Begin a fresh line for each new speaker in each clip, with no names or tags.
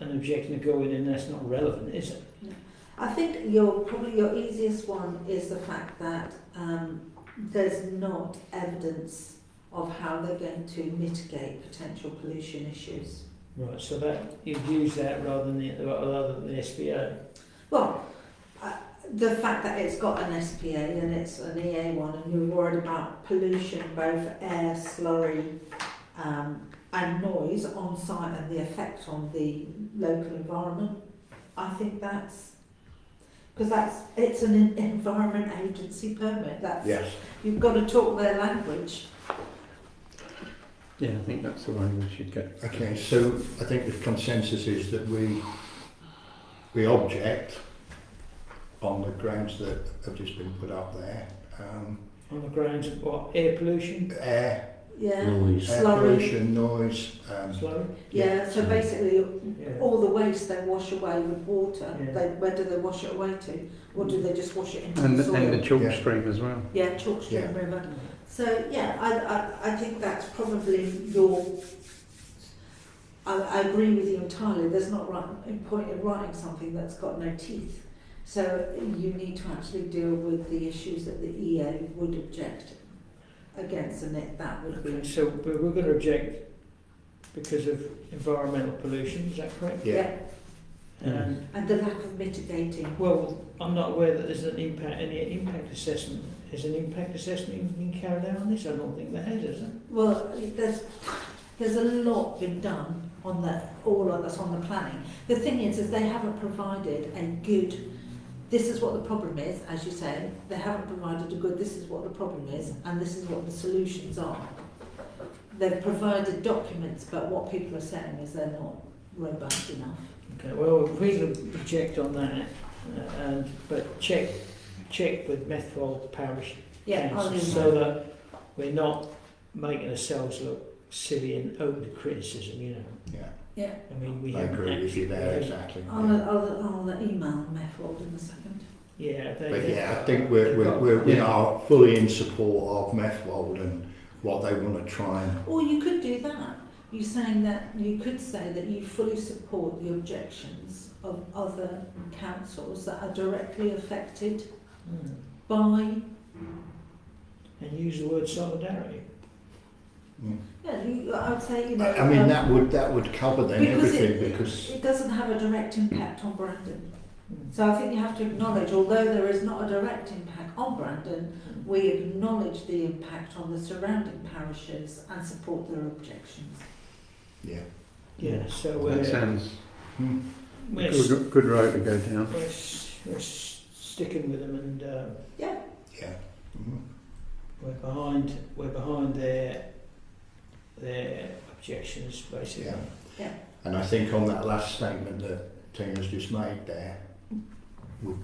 an objection to go in and that's not relevant, is it?
I think your probably your easiest one is the fact that um, there's not evidence of how they're going to mitigate potential pollution issues.
Right, so that, you'd use that rather than the, rather than the SBA.
Well, uh, the fact that it's got an SPA and it's an EA one, and you're worried about pollution, both air, slurry, um, and noise on site, and the effect on the local environment. I think that's because that's it's an en- environment agency permit. That's
Yes.
you've got to talk their language.
Yeah, I think that's the one we should go.
Okay, so I think the consensus is that we, we object on the grounds that have just been put up there. Um,
On the grounds of what, air pollution,
air,
Yeah,
Noise.
air
Slurry.
pollution, noise, um,
slurry?
yeah. So basically,
Yeah.
all the waste they wash away with water.
Yeah.
They, where do they wash it away to, or do they just wash it into
And,
the soil?
and the chalk
Yeah.
stream as well.
Yeah, Chalkstone
Yeah.
River. So yeah, I, I, I think that's probably your. I, I agree with you entirely. There's not right, no point in writing something that's got no teeth. So you need to actually deal with the issues that the EA would object against, and it, that would
Okay,
be
so we- we're going to object because of environmental pollution, is that correct?
yeah,
And,
and the lack of mitigating.
well, I'm not aware that there's an impact, any impact assessment. Has an impact assessment even been carried out on this? I don't think there has, has there?
Well, there's there's a lot been done on the all of that's on the planning. The thing is, is they haven't provided a good. This is what the problem is, as you say. They haven't provided a good. This is what the problem is, and this is what the solutions are. They've provided documents, but what people are saying is they're not robust enough.
Okay, well, if we can object on that, uh, and, but check, check with Methwold Parish
Yeah, I'll
Council
leave
so
that.
that we're not making ourselves look silly and open to criticism, you know.
yeah.
I mean, we
I
haven't
agree with
actually-
you there, exactly.
I'll,
Yeah.
I'll, I'll email Meffold in a second.
Yeah, they,
But
they-
yeah, I think we're, we're, we're, we
Yeah.
are fully in support of Methwold and what they want to try and
Or you could do that. You're saying that you could say that you fully support the objections of other councils that are directly affected
Mm.
by.
and use the word solidarity.
Yeah, you, I would say you know.
I, I mean,
um,
that would that would cover then
Because it-
everything because
It doesn't have a direct impact on Brandon.
Mm.
So I think you have to acknowledge, although there is not a direct impact on Brandon, we acknowledge the impact on the surrounding parishes and support their objections.
yeah,
Yeah, so
That
we're,
sounds
Hmm.
we're,
a
s-
good, good road to go down.
we're, s- we're s- sticking with them and uh,
yeah, Mhm.
we're behind, we're behind their, their objections, basically.
yeah.
Yeah.
And I think on that last statement that Tina's just made there, we'll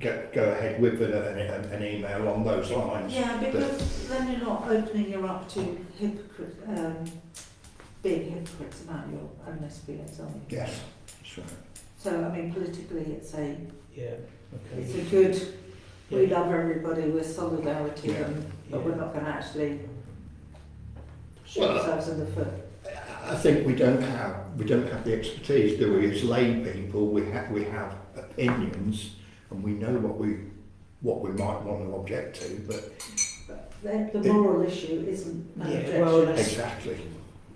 go, go ahead with an, an, an email on those lines.
Yeah, because then you're not opening her up to hypocrite, um, being hypocrites about your own SBAs, are you?
Yes, that's right.
So, I mean, politically, it's a,
Yeah, okay.
it's a good, uh, we
Yeah,
love everybody, we're solidarity,
Yeah.
and, but we're
yeah.
not going to actually shoot
Well,
ourselves in the foot.
I think we don't have we don't have the expertise, do we? As lay people, we have we have opinions, and we know what we what we might want to object to, but
The, the moral issue isn't an
Yeah,
objection.
well, that's-
exactly.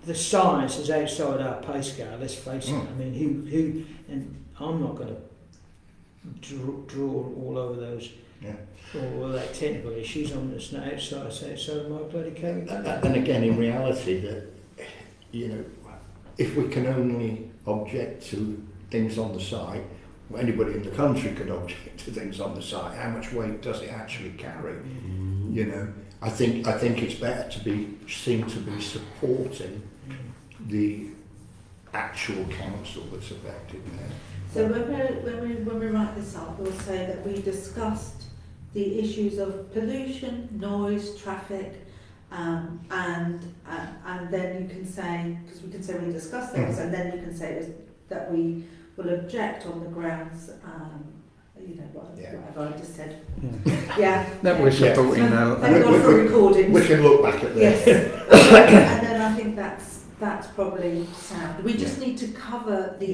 The science is outside our pay scale, let's face it.
Mm.
I mean, who, who, and I'm not going to draw, draw all over those,
Yeah.
all that technical issues on this now outside, outside of my bloody
And
capability.
and again, in reality, that you know, if we can only object to things on the site, well, anybody in the country could object to things on the site. How much weight does it actually carry? You know, I think I think it's better to be seen to be supporting
Mm.
the actual council that's affected there.
So when we, when we, when we write this up, we'll say that we discussed the issues of pollution, noise, traffic, um, and, uh, and then you can say, because we can say we discussed those, and then you can say is that we will object on the grounds, um, you know, what,
Yeah.
whatever I just said.
Yeah.
Yeah.
That we're
Yeah.
supporting our-
Thank God for
We- we-
recordings.
We can look back at
Yes.
this.
and then I think that's, that's probably sound. We just need to cover the